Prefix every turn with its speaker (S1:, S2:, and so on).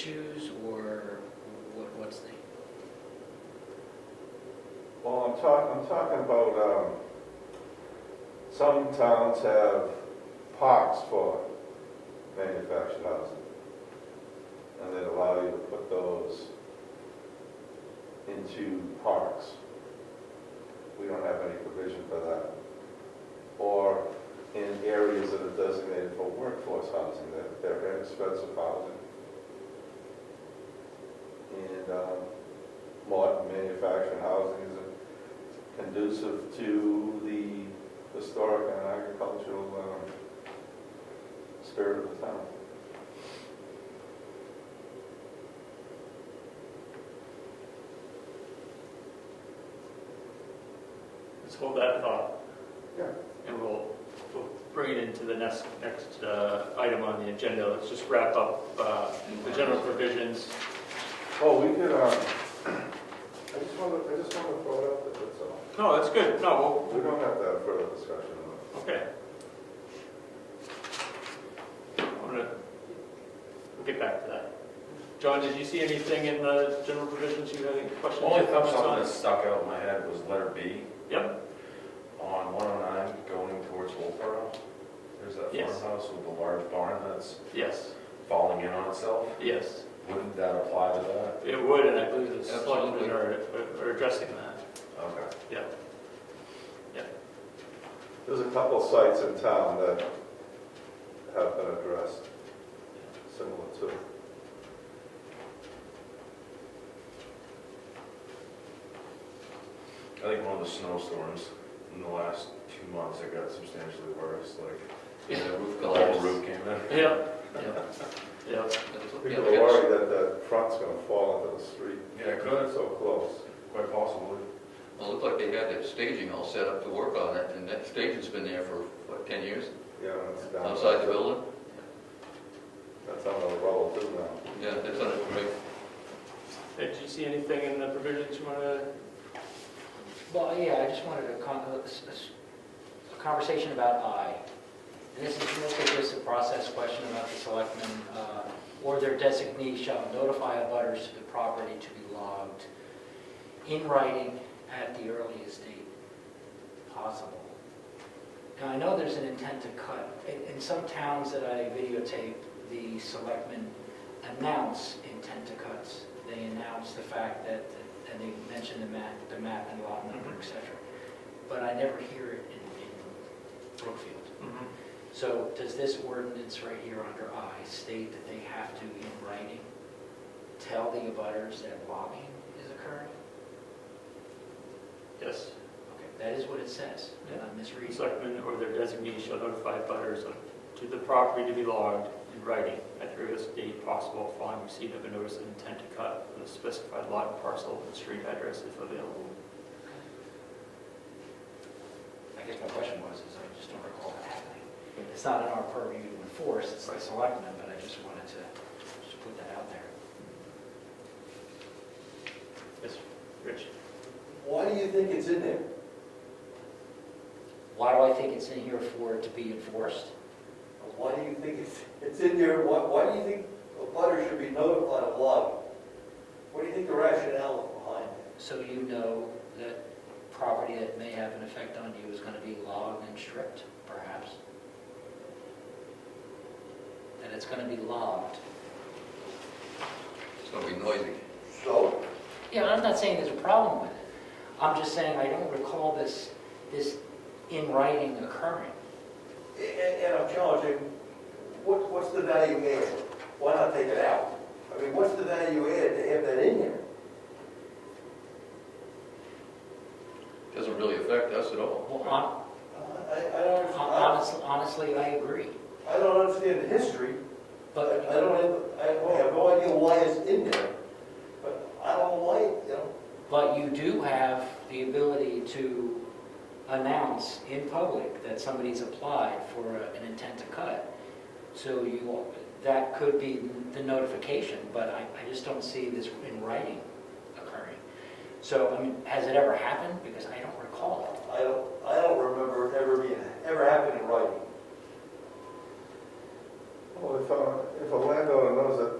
S1: issues, or what, what's the?
S2: Well, I'm talking, I'm talking about, um, some towns have parks for manufactured housing. And they allow you to put those into parks. We don't have any provision for that. Or in areas that are designated for workforce housing, that they're inexpensive housing. And, um, modern manufactured housing is conducive to the historic and agricultural um, spirit of the town.
S3: Let's hold that thought.
S2: Yeah.
S3: And we'll, we'll bring it into the next, next uh, item on the agenda. Let's just wrap up uh, the general provisions.
S2: Oh, we could, um, I just want to, I just want to throw it out there, that's all.
S3: No, that's good. No,
S2: We don't have to have further discussion on it.
S3: we'll- okay. I'm gonna, we'll get back to that. John, did you see anything in the general provisions you had any questions? or
S4: Only thing
S3: comments
S4: something
S3: on?
S4: that stuck out in my head was letter B
S3: Yep,
S4: on 109 going towards Wolfboro. There's that
S3: Yes.
S4: farmhouse with the large barn that's
S3: yes,
S4: falling in on itself.
S3: yes.
S4: Wouldn't that apply to that?
S3: It would, and I believe the
S4: Absolutely.
S3: selectmen are, are addressing that.
S4: Okay.
S3: Yeah,
S2: There's a couple of sites in town that have been addressed, similar to.
S4: I think one of the snowstorms in the last two months, it got substantially worse, like,
S1: Yeah, roof
S4: the whole
S1: collapse.
S4: roof came in.
S3: yeah, yeah, yeah.
S2: People are worried that that front's going to fall into the street.
S4: Yeah, it could,
S2: So close.
S4: quite possibly.
S5: Well, it looked like they had that staging all set up to work on it, and that staging's been there for, what, 10 years?
S2: Yeah, it's down.
S5: Outside the building?
S2: That's on the roll too now.
S5: Yeah, that's on it, right?
S3: Hey, Did you see anything in the provisions you want to,
S1: Well, yeah, I just wanted a con, a s- a s- a conversation about I. And this is mostly just a process question about the selectmen, uh, or their designee shall notify abutters to the property to be logged in writing at the earliest date possible. Now, I know there's an intent to cut. In, in some towns that I videotape, the selectmen announce intent to cuts. They announce the fact that, and they mention the map, the map and lot number, et cetera. But I never hear it in, in Brookfield. So does this ordinance right here under I state that they have to, in writing, tell the abutters that logging is occurring?
S3: yes,
S1: Okay, that is what it says. Did I misread?
S3: selectmen or their designee shall notify butters to the property to be logged in writing at the earliest date possible following receipt of a notice of intent to cut with a specified lot and parcel and street address if available.
S1: I guess my question was, is I just don't recall that happening. It's not in our purview to enforce, it's the selectmen, but I just wanted to just put that out there.
S3: Yes, Rich?
S6: Why do you think it's in there?
S1: Why do I think it's in here for it to be enforced?
S6: Why do you think it's, it's in there, why, why do you think a butter should be notified of logging? What do you think the rationale is behind it?
S1: So you know that property that may have an effect on you is going to be logged and stripped, perhaps? That it's going to be logged.
S5: It's gonna be noisy.
S6: So,
S1: Yeah, I'm not saying there's a problem with it. I'm just saying I don't recall this, this in writing occurring.
S6: a- and, and I'm challenging, what, what's the value add? Why not take it out? I mean, what's the value add to have that in there?
S5: Doesn't really affect us at all.
S1: Well, hon-
S6: I, I don't, I,
S1: Honestly, honestly, I agree,
S6: I don't understand the history, but I
S1: but,
S6: don't have, I have no idea why it's in there. But I don't like, you know,
S1: but you do have the ability to announce in public that somebody's applied for a- an intent to cut. So you, that could be the notification, but I, I just don't see this in writing occurring. So, I mean, has it ever happened? Because I don't recall it.
S6: I don't, I don't remember it ever being, ever happening in writing.
S2: Well, if, uh, if a landowner knows that